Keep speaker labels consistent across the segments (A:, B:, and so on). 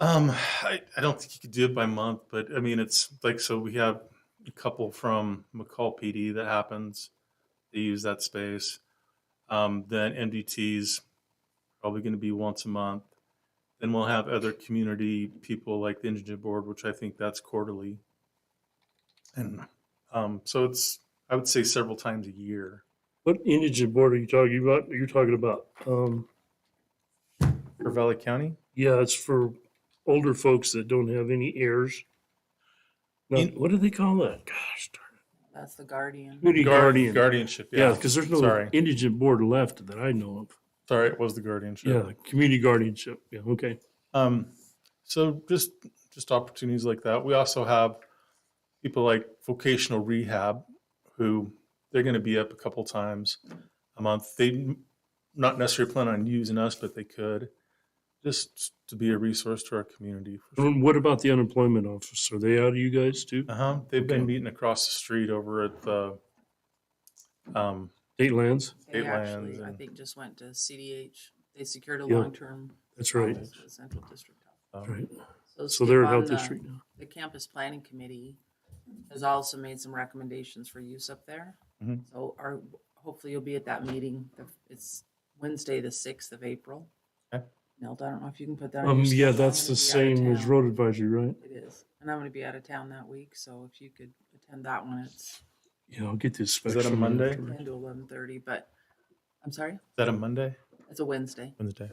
A: Um, I, I don't think you could do it by month, but I mean, it's like so we have a couple from McCall PD that happens. They use that space. Um, then MDT's probably going to be once a month. Then we'll have other community people like the Indigent Board, which I think that's quarterly. And um, so it's I would say several times a year.
B: What indigent board are you talking about? Are you talking about? Um,
A: For Valley County,
B: yeah, it's for older folks that don't have any heirs. No,
A: In-
B: what do they call that? Gosh, darn it.
C: That's the guardian.
B: community
A: Guard-
B: guardian.
A: guardianship.
B: yeah,
A: Yeah,
B: because there's no
A: Sorry.
B: indigent board left that I know of.
A: sorry, it was the guardianship.
B: Yeah, community guardianship. Yeah, okay.
A: Um, so just just opportunities like that. We also have people like vocational rehab who they're going to be up a couple times a month. They n- not necessarily plan on using us, but they could just to be a resource to our community. For sure.
B: And what about the unemployment office? Are they out of you guys too?
A: Uh-huh. They've
B: Okay.
A: been meeting across the street over at the um,
B: State lands?
C: They
A: State lands
C: actually, I
A: and-
C: think, just went to CDH. They secured a
B: Yeah,
C: long-term.
B: That's right.
C: office with Central District.
A: um,
B: Right. So
C: Skip
B: they're
C: on uh,
B: out
C: the-
B: this street now.
C: The Campus Planning Committee has also made some recommendations for use up there.
B: Mm-hmm.
A: Mhm.
C: So our, hopefully you'll be at that meeting. The- It's Wednesday, the sixth of April.
A: Okay.
C: Neld, I don't know if you can put that on.
B: Um,
C: your
B: yeah,
C: schedule. I'm
B: that's the
C: gonna be out of
B: same as
C: town.
B: road advisory, right?
C: It is. And I'm going to be out of town that week, so if you could attend that one, it's
B: Yeah, I'll get this.
A: Is that a Monday?
C: ten to eleven thirty, but, I'm sorry,
A: Is that a Monday?
C: it's a Wednesday.
A: Wednesday.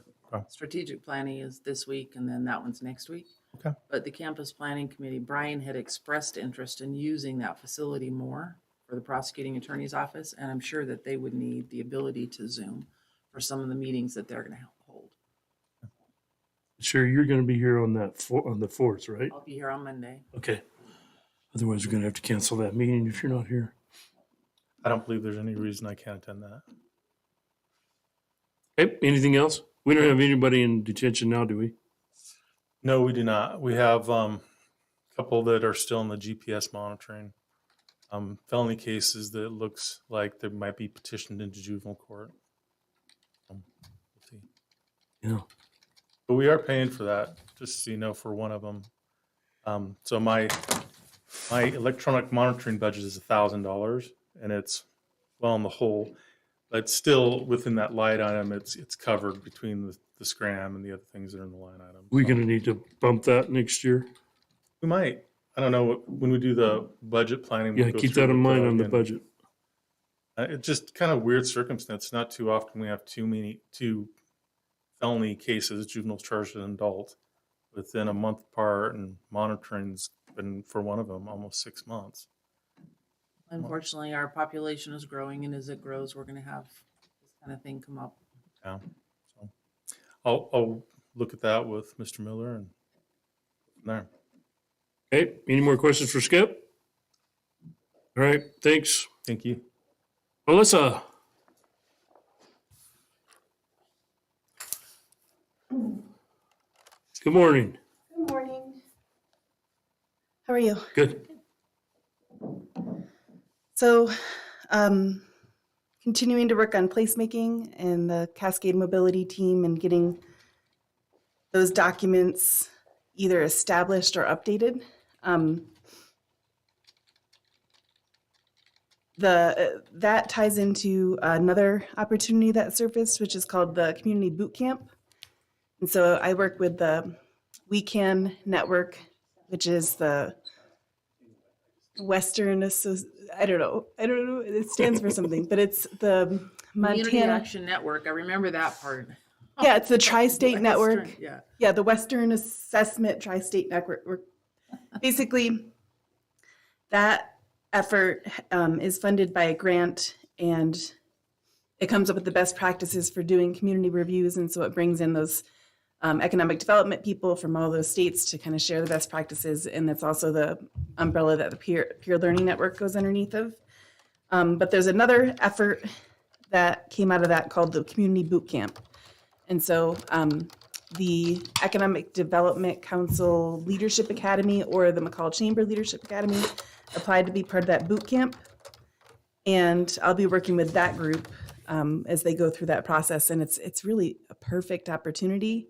C: strategic planning is this week and then that one's next week.
A: Okay.
C: But the campus planning committee, Brian had expressed interest in using that facility more for the prosecuting attorney's office, and I'm sure that they would need the ability to Zoom for some of the meetings that they're gonna hold.
B: Sure, you're going to be here on that, four- on the fourth, right?
C: I'll be here on Monday.
B: Okay. Otherwise, we're going to have to cancel that meeting if you're not here.
A: I don't believe there's any reason I can't attend that.
B: Okay, anything else? We don't have anybody in detention now, do we?
A: No, we do not. We have um, a couple that are still in the GPS monitoring. Um, felony cases that looks like they might be petitioned into juvenile court. Um, we'll see.
B: Yeah.
A: But we are paying for that, just so you know, for one of them. Um, so my my electronic monitoring budget is a thousand dollars, and it's well in the hole, but still within that light item, it's it's covered between the, the scram and the other things that are in the line item.
B: We're
A: So-
B: going to need to bump that next year.
A: we might. I don't know what- when we do the budget planning. we'll
B: Yeah,
A: go
B: keep
A: through
B: that in
A: with,
B: mind
A: uh,
B: on the
A: again.
B: budget.
A: Uh, It's just kind of weird circumstance. Not too often we have too many two felony cases, juveniles charged and adult, within a month apart, and monitoring's been for one of them almost six months.
C: Unfortunately, our population is growing, and as it grows, we're gonna have this kind of thing come up.
A: Yeah. So I'll, I'll look at that with Mr. Miller and there.
B: Okay, any more questions for Skip? All right, thanks.
A: Thank you.
B: Melissa? Good morning.
D: Good morning. How are you?
B: Good.
D: So, um, continuing to work on placemaking and the Cascade Mobility Team and getting those documents either established or updated. Um, the that ties into another opportunity that surfaced, which is called the Community Boot Camp. And so I work with the We Can Network, which is the Western Associ- I don't know. I don't know. It stands for something, but it's the
C: Community
D: Montana.
C: Action Network, I remember that part.
D: Yeah, it's the Tri-State Network.
C: Western, Yeah.
D: Yeah, the Western Assessment Tri-State Network. We're- Basically, that effort um, is funded by a grant and it comes up with the best practices for doing community reviews. And so it brings in those um, economic development people from all those states to kind of share the best practices. And that's also the umbrella that the peer, peer learning network goes underneath of. Um, but there's another effort that came out of that called the Community Boot Camp. And so um, the Economic Development Council Leadership Academy or the McCall Chamber Leadership Academy applied to be part of that boot camp. And I'll be working with that group um, as they go through that process. And it's it's really a perfect opportunity